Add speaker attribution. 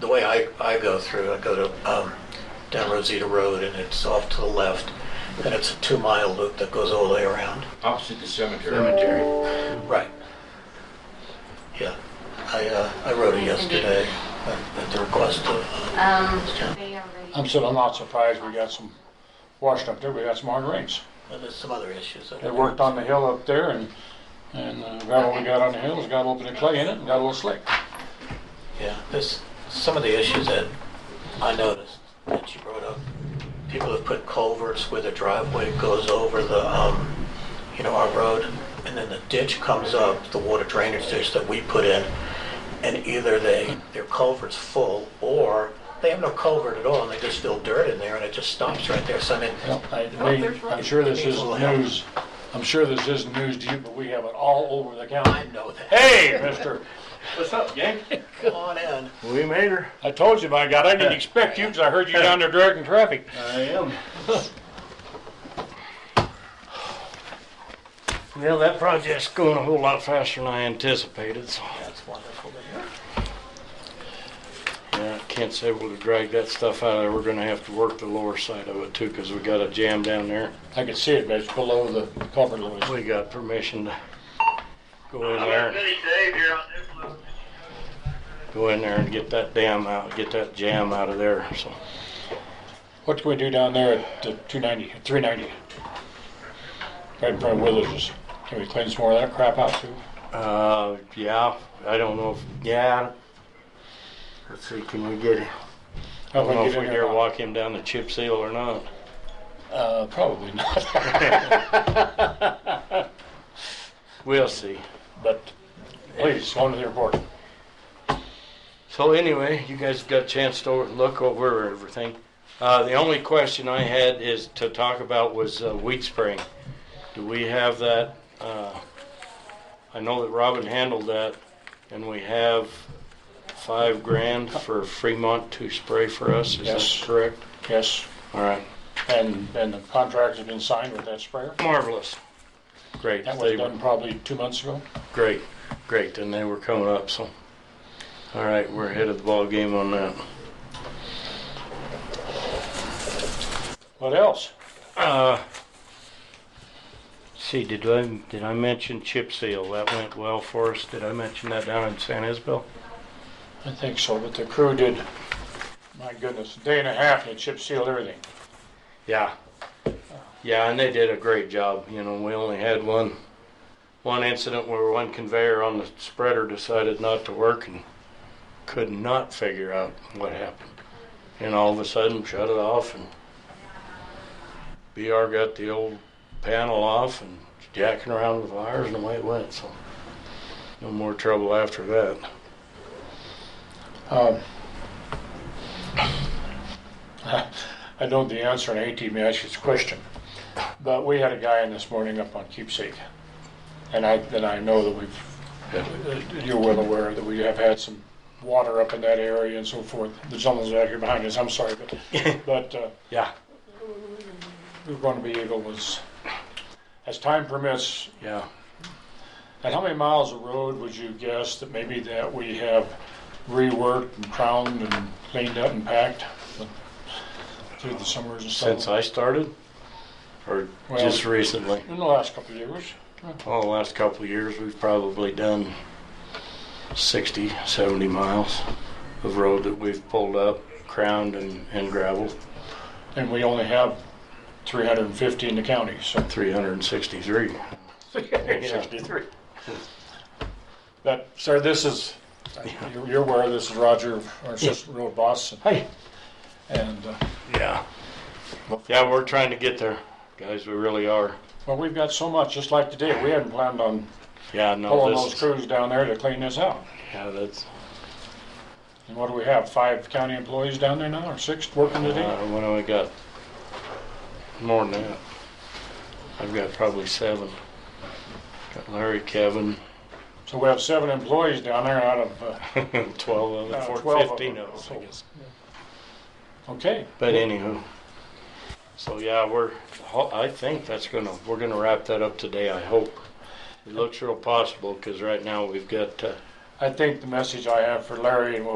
Speaker 1: the way I, I go through, I go to, um, down Rosita Road and it's off to the left. And it's a two-mile loop that goes all the way around.
Speaker 2: Opposite the cemetery.
Speaker 3: cemetery.
Speaker 1: Right. Yeah. I, uh, I wrote it yesterday at at the request of,
Speaker 4: Um, they already.
Speaker 3: I'm so, I'm not surprised we got some washed up there, we got some hard rains.
Speaker 1: uh, there's some other issues. that-
Speaker 3: They worked on the hill up there and, and uh, gravel we got on the hill has got a little bit of clay in it and got a little slick.
Speaker 1: Yeah, there's some of the issues that I noticed that you brought up. People have put culverts where the driveway goes over the, um, you know, our road, and then the ditch comes up, the water drainage ditch that we put in, and either they, their culvert's full, or they have no culvert at all, and they just fill dirt in there, and it just stops right there, so I mean,
Speaker 3: Well, I- we- I'm sure this isn't news, I'm sure this isn't news to you, but we have it all over the
Speaker 1: I
Speaker 3: county.
Speaker 1: know that.
Speaker 3: Hey, mister,
Speaker 5: What's up, gang?
Speaker 1: Come on in.
Speaker 5: We made her.
Speaker 3: I told you, by God, I didn't expect you because I heard you down there directing traffic.
Speaker 5: I am. Well, that project's going a whole lot faster than I anticipated, so
Speaker 1: That's wonderful to hear.
Speaker 5: yeah, I can't say we'll drag that stuff out of there. We're gonna have to work the lower side of it too, because we got a jam down there.
Speaker 3: I could see it, but it's below the culvert lines.
Speaker 5: We got permission to go in there, go in there and get that dam out, get that jam out of there, so.
Speaker 3: What can we do down there at uh, the 290, 390? Right in front of Withers. Can we clean some more of that crap out too?
Speaker 5: Uh, yeah, I don't know if, yeah. Let's see, can we get, I don't know if we dare walk him down the chip seal or not.
Speaker 3: Uh, probably not.
Speaker 5: We'll see.
Speaker 3: But please, go to the report.
Speaker 5: So anyway, you guys got a chance to look over everything. Uh, the only question I had is to talk about was uh, weed spraying. Do we have that? Uh, I know that Robin handled that, and we have five grand for Fremont to spray for us. Is
Speaker 3: Yes.
Speaker 5: that correct?
Speaker 3: Yes,
Speaker 5: All right.
Speaker 3: and, and the contract has been signed with that sprayer.
Speaker 5: Marvelous. Great.
Speaker 3: That was
Speaker 5: They were-
Speaker 3: done probably two months ago.
Speaker 5: Great, great, and they were coming up, so, all right, we're ahead of the ball game on that.
Speaker 3: What else?
Speaker 5: Uh, See, did I, did I mention chip seal? That went well for us. Did I mention that down in San Isabel?
Speaker 3: I think so, but the crew did, my goodness, a day and a half, and they chip sealed everything.
Speaker 5: Yeah. Yeah, and they did a great job, you know, we only had one, one incident where one conveyor on the spreader decided not to work and could not figure out what happened. And all of a sudden shut it off and BR got the old panel off and jacking around with wires and away it went, so no more trouble after that.
Speaker 3: Um, I know the answer, and I hate to even ask you this question, but we had a guy in this morning up on Keepsake, and I, and I know that we've, Uh, you're well aware that we have had some water up in that area and so forth. The gentleman's out here behind us, I'm sorry, but, but uh,
Speaker 5: Yeah,
Speaker 3: we're going to be able, as, as time permits,
Speaker 5: yeah.
Speaker 3: and how many miles of road would you guess that maybe that we have reworked and crowned and cleaned up and packed through the summers and stuff?
Speaker 5: Since I started, or
Speaker 3: Well-
Speaker 5: just recently?
Speaker 3: In the last couple of years,
Speaker 5: Well, Oh, the last couple of years, we've probably done 60, 70 miles of road that we've pulled up, crowned and, and gravelled,
Speaker 3: and we only have 350 in the county, so.
Speaker 5: 363.
Speaker 3: But, sir, this is, you're- you're aware, this is Roger, our assistant road boss,
Speaker 5: Hey.
Speaker 3: and, uh,
Speaker 5: Yeah. Yeah, we're trying to get there, guys, we really are.
Speaker 3: well, we've got so much, just like today, we hadn't planned on
Speaker 5: Yeah, no,
Speaker 3: pulling those
Speaker 5: this,
Speaker 3: crews down there to clean this out.
Speaker 5: yeah, that's,
Speaker 3: And what do we have, five county employees down there now, or six working
Speaker 5: uh,
Speaker 3: today?
Speaker 5: what do we got? More than that. I've got probably seven. Got Larry, Kevin,
Speaker 3: So we have seven employees down there out of, uh,
Speaker 5: 12 of
Speaker 3: Uh,
Speaker 5: them,
Speaker 3: 12
Speaker 5: four-
Speaker 3: of
Speaker 5: 15
Speaker 3: them.
Speaker 5: of us, I guess.
Speaker 3: okay,
Speaker 5: But anywho, so yeah, we're, ho- I think that's gonna, we're gonna wrap that up today, I hope. It looks real possible, because right now we've got, uh,
Speaker 3: I think the message I have for Larry and what